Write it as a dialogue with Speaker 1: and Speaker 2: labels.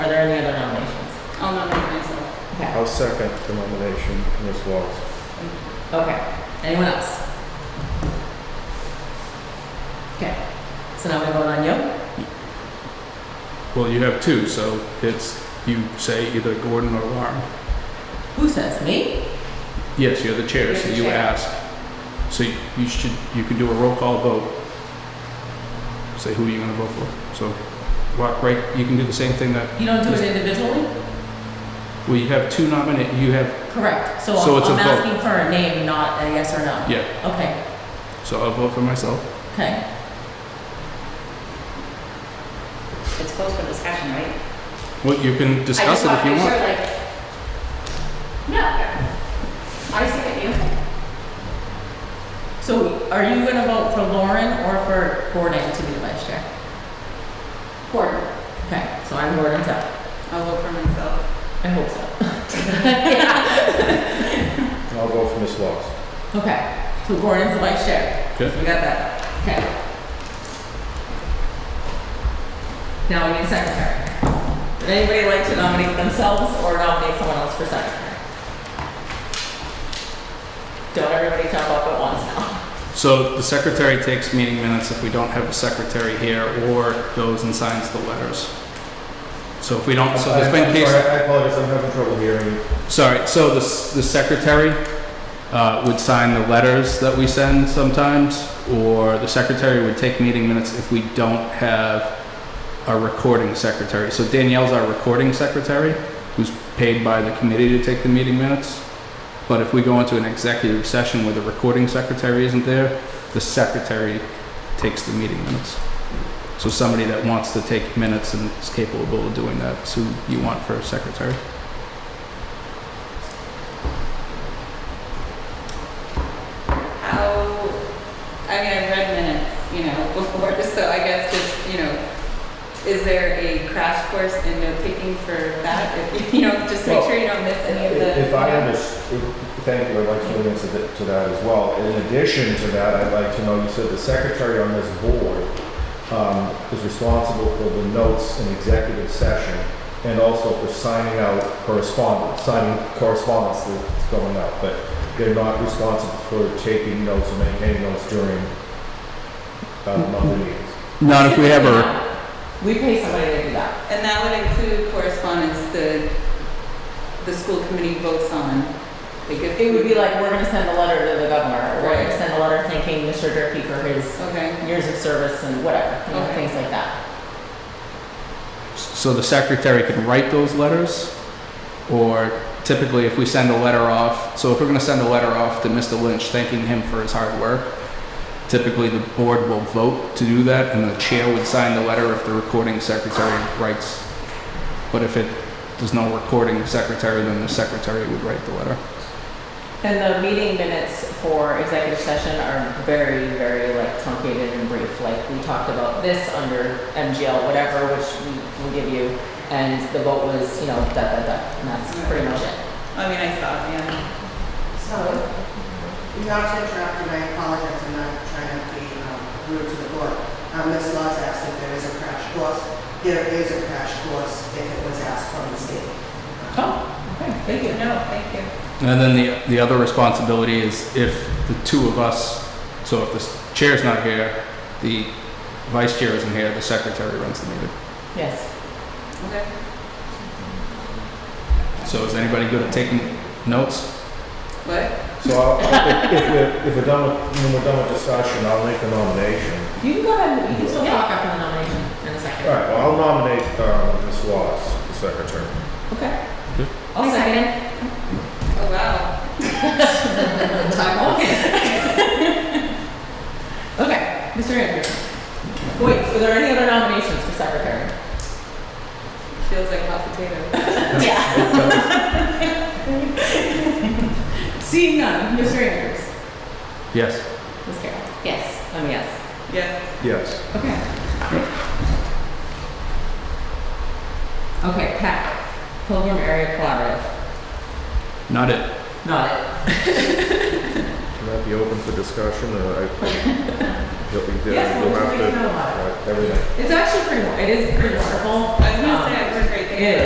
Speaker 1: I'll second the nomination for Ms. Walls.
Speaker 2: Okay, anyone else? Okay, so now we vote on you?
Speaker 3: Well, you have two, so it's, you say either Gordon or Lauren.
Speaker 2: Who says, me?
Speaker 3: Yes, you're the chair, so
Speaker 2: You're the
Speaker 3: you
Speaker 2: chair.
Speaker 3: ask. So you- you should, you can do a roll call vote. Say who are you gonna vote for? So, walk right, you can do the same thing that,
Speaker 2: You don't do it individually?
Speaker 3: well, you have two nominate, you have,
Speaker 2: Correct, so
Speaker 3: So
Speaker 2: I'm
Speaker 3: it's a
Speaker 2: I'm
Speaker 3: vote.
Speaker 2: asking for a name, not a yes or no.
Speaker 3: yeah,
Speaker 2: Okay,
Speaker 3: so I'll vote for myself.
Speaker 2: okay.
Speaker 4: It's closed for discussion, right?
Speaker 3: Well, you can
Speaker 4: I
Speaker 3: discuss
Speaker 4: just
Speaker 3: it
Speaker 4: want
Speaker 3: if
Speaker 4: to
Speaker 3: you
Speaker 4: make sure,
Speaker 3: want.
Speaker 4: like, no, I see what you.
Speaker 2: So are you gonna vote for Lauren or for Gordon to be the vice chair?
Speaker 4: Gordon,
Speaker 2: Okay, so I'm Gordon's up.
Speaker 4: I'll vote for myself.
Speaker 2: I hope so.
Speaker 1: And I'll vote for Ms. Walls.
Speaker 2: Okay, so Gordon's the vice chair.
Speaker 3: Okay.
Speaker 2: We got that. Okay. Now we need a secretary. Would anybody like to nominate themselves or nominate someone else for secretary? Don't everybody jump up at once now.
Speaker 3: So the secretary takes meeting minutes if we don't have a secretary here or goes and signs the letters. So if we don't, so there's
Speaker 1: I'm
Speaker 3: been
Speaker 1: sorry,
Speaker 3: cases.
Speaker 1: I apologize, I'm having trouble hearing you.
Speaker 3: Sorry, so the, s- the secretary uh, would sign the letters that we send sometimes, or the secretary would take meeting minutes if we don't have a recording secretary. So Danielle's our recording secretary, who's paid by the committee to take the meeting minutes. But if we go into an executive session where the recording secretary isn't there, the secretary takes the meeting minutes. So somebody that wants to take minutes and is capable of doing that, so you want for a secretary.
Speaker 4: How, I mean, I've read minutes, you know, before, so I guess just, you know, is there a crash course in note taking for that? If, you know, just make
Speaker 1: Well,
Speaker 4: sure you don't miss any of the.
Speaker 1: If I understand, thank you, I'd like to answer that- to that as well. In addition to that, I'd like to know, you said the secretary on this board um, is responsible for the notes in executive session and also for signing out correspondence, signing correspondence that's going out, but they're not responsible for taking notes or maintaining notes during uh, monthly meetings.
Speaker 3: Not if we have a
Speaker 2: We pay somebody to do that.
Speaker 4: And that would include correspondence the, the school committee votes on. Like if
Speaker 2: It would be like, we're gonna send a letter to the governor, or we're gonna
Speaker 4: Right.
Speaker 2: send a letter thanking Mr. Durkey for his
Speaker 4: Okay.
Speaker 2: years of service and whatever, you know,
Speaker 4: Okay.
Speaker 2: things like that.
Speaker 3: So the secretary can write those letters, or typically if we send a letter off, so if we're gonna send a letter off to Mr. Lynch thanking him for his hard work, typically the board will vote to do that, and the chair would sign the letter if the recording secretary writes. But if it, there's no recording secretary, then the secretary would write the letter.
Speaker 2: And the meeting minutes for executive session are very, very like truncated and brief. Like we talked about this under MGL, whatever, which we will give you. And the vote was, you know, da, da, da, and that's pretty much it.
Speaker 4: I mean, I saw, it, yeah.
Speaker 5: So, not to interrupt, and I apologize, I'm not trying to be um, rude to the board. Um, Ms. Laws asked if there is a crash course. There is a crash course if it was asked from the state.
Speaker 2: Oh, okay, thank you.
Speaker 4: No, thank you.
Speaker 3: And then the, the other responsibility is if the two of us, so if the chair's not here, the vice chair isn't here, the secretary runs the meeting.
Speaker 2: Yes.
Speaker 4: Okay.
Speaker 3: So is anybody good at taking notes?
Speaker 4: What?
Speaker 1: So I'll- if, if we're, if we're done with, when we're done with discussion, I'll make a nomination.
Speaker 2: You can go ahead, you can still
Speaker 4: Yeah.
Speaker 2: talk after the nomination in a
Speaker 1: All
Speaker 2: second.
Speaker 1: right, well, I'll nominate um, Ms. Wallace for secretary.
Speaker 2: Okay.
Speaker 3: Good.
Speaker 2: I'll
Speaker 4: I
Speaker 2: second.
Speaker 4: Oh, wow.
Speaker 2: Okay. Okay, Mr. Andrews. Wait, were there any other nominations for secretary?
Speaker 4: Feels like hot potato.
Speaker 2: Yeah. Seeing none, Mr. Andrews.
Speaker 3: Yes.
Speaker 2: Ms. Carroll. Yes. Um, yes.
Speaker 4: Yes.
Speaker 1: Yes.
Speaker 2: Okay. Okay, PAC, Pilgrim Area Collaborative.
Speaker 3: Not it.
Speaker 2: Not it.
Speaker 1: Can that be open for discussion, or I, you'll be there,
Speaker 2: Yes,
Speaker 1: you'll
Speaker 2: we'll
Speaker 1: have
Speaker 2: make it
Speaker 1: to,
Speaker 2: out.
Speaker 1: right, everything.
Speaker 2: It's actually pretty, it is pretty wonderful. Um,
Speaker 4: I was gonna say, I've heard great things.
Speaker 2: It is.